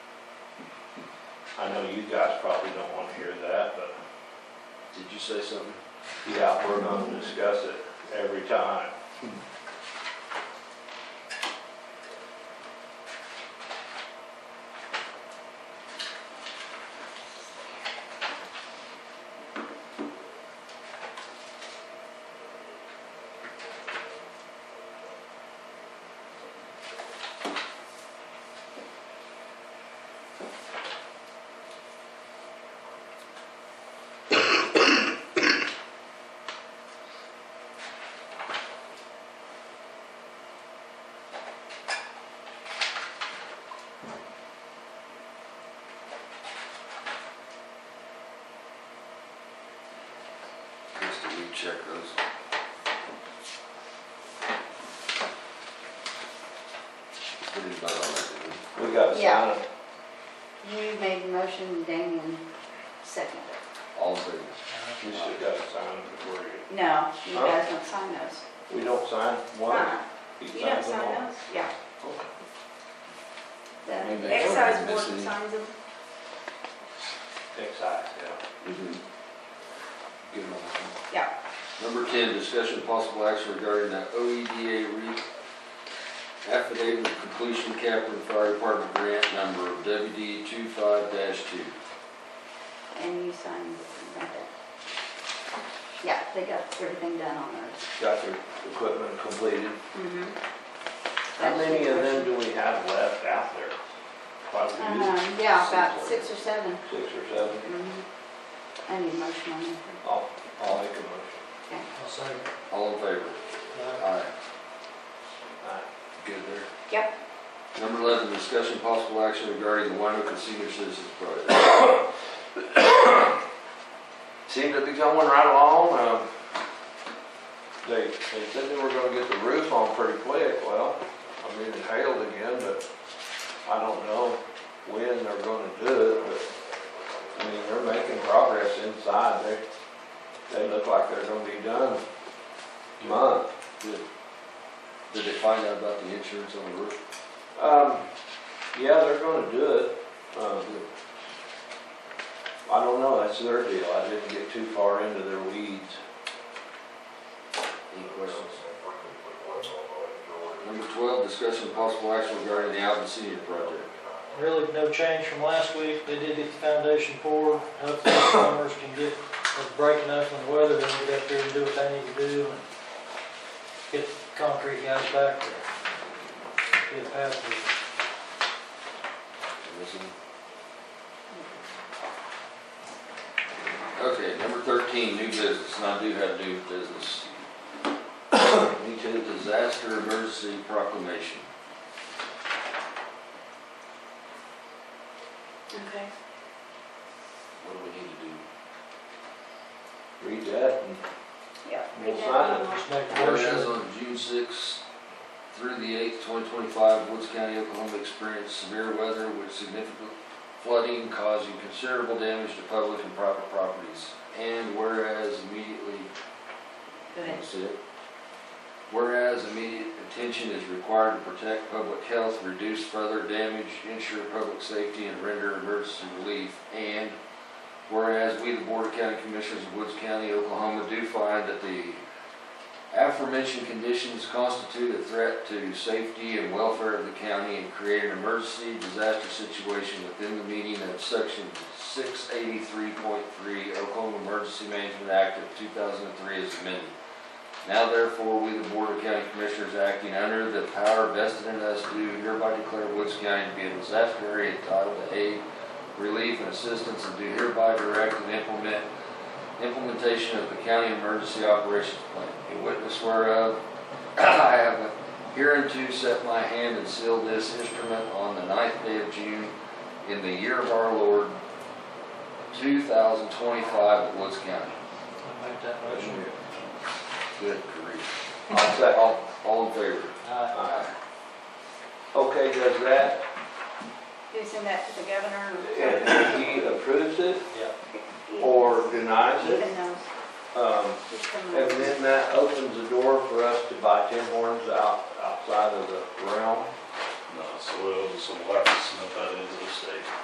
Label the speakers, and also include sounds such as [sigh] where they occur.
Speaker 1: I know you guys probably don't wanna hear that, but
Speaker 2: Did you say something?
Speaker 1: yeah, we're gonna discuss it every time.
Speaker 2: Chris, did you check those? We did vote on that, didn't we?
Speaker 1: We gotta sign
Speaker 3: Yeah.
Speaker 1: it.
Speaker 3: You made the motion, Damien seconded
Speaker 2: All in favor?
Speaker 1: We still gotta sign it before you.
Speaker 3: it. No, you
Speaker 1: Huh?
Speaker 3: guys don't sign those.
Speaker 1: We don't sign one?
Speaker 3: Fine.
Speaker 1: He
Speaker 3: You don't
Speaker 1: signs them all?
Speaker 3: sign those? Yeah.
Speaker 2: Maybe
Speaker 3: The
Speaker 2: they were
Speaker 3: excise board
Speaker 2: missing.
Speaker 3: signs them.
Speaker 1: Excise, yeah.
Speaker 2: Mhm. Give them all.
Speaker 3: Yeah.
Speaker 2: Number 10, discussion of possible action regarding the OEDA re- affidavit of completion Captain Fire Department grant number WD 25-2.
Speaker 3: And you signed right there. Yeah, they got everything done on those.
Speaker 1: Got your equipment completed.
Speaker 3: Mm-hmm.
Speaker 1: How many of them do we have left out there? Uh-huh. Quite a
Speaker 3: Um, yeah, about six or seven.
Speaker 1: few, six or seven.
Speaker 3: Mhm. I need motion on that.
Speaker 1: I'll, I'll make a motion.
Speaker 4: I'll second.
Speaker 2: All in favor?
Speaker 4: uh,
Speaker 2: Aye.
Speaker 1: Aye.
Speaker 2: Good there.
Speaker 3: Yep.
Speaker 2: Number 11, discussion of possible action regarding the Wynoke Senior Citizens Project.
Speaker 1: Seemed to be going right along, um, they, they said they were gonna get the roof on pretty quick, well, I mean, it hailed again, but I don't know when they're gonna do it, but, I mean, they're making progress inside, they, they look like they're gonna be done month.
Speaker 2: Good. Did they find out about the insurance on the roof?
Speaker 1: Um, yeah, they're gonna do it, um, I don't know, that's their deal, I didn't get too far into their weeds.
Speaker 2: Any questions? Number 12, discussion of possible action regarding the Alvin Senior Project.
Speaker 4: Really, no change from last week. They did get the foundation poured. Hopefully the farmers can get a break enough in the weather and get up there and do what they need to do and get the concrete guys back there. Get a path through.
Speaker 2: Listen. Okay, number thirteen, new business, and I do have new business. Me too, disaster emergency proclamation.
Speaker 3: Okay.
Speaker 2: What do we need to
Speaker 1: Read
Speaker 2: do?
Speaker 1: that and
Speaker 3: Yep.
Speaker 1: We'll sign it.
Speaker 4: Just make a
Speaker 2: Whereas
Speaker 4: motion.
Speaker 2: on June sixth through the eighth, twenty twenty-five, Woods County, Oklahoma experienced severe weather with significant flooding causing considerable damage to public and private properties. And whereas immediately
Speaker 3: Go ahead.
Speaker 2: That's it. Whereas immediate attention is required to protect public health, reduce further damage, ensure public safety, and render emergency relief. And whereas we, the Board of County Commissioners of Woods County, Oklahoma, do find that the aforementioned conditions constitute a threat to safety and welfare of the county and create an emergency disaster situation within the meaning of section six eighty-three point three Oklahoma Emergency Management Act of two thousand and three as amended. Now therefore, we, the Board of County Commissioners, acting under the power vested in us, do hereby declare Woods County to be a disaster area entitled to aid, relief, and assistance, and do hereby direct and implement implementation of the County Emergency Operations Plan. A witness whereof, [clears throat] I have hereunto set my hand and sealed this instrument on the ninth day of June in the year of our Lord, 2025 at Woods County.
Speaker 4: I'll Make that motion.
Speaker 2: Good grief.
Speaker 1: I'll second.
Speaker 2: All, all in favor?
Speaker 4: Aye.
Speaker 1: Aye. Uh, Okay, does that,
Speaker 3: You send that to the governor?
Speaker 1: if he approves it
Speaker 4: Yeah.
Speaker 1: or denies it,
Speaker 3: Even those,
Speaker 1: um,
Speaker 3: just
Speaker 1: and
Speaker 3: some-
Speaker 1: then that opens the door for us to buy Tim Hortons out, outside of the realm.
Speaker 5: No, it's a little, it's a lot of snow that is this day.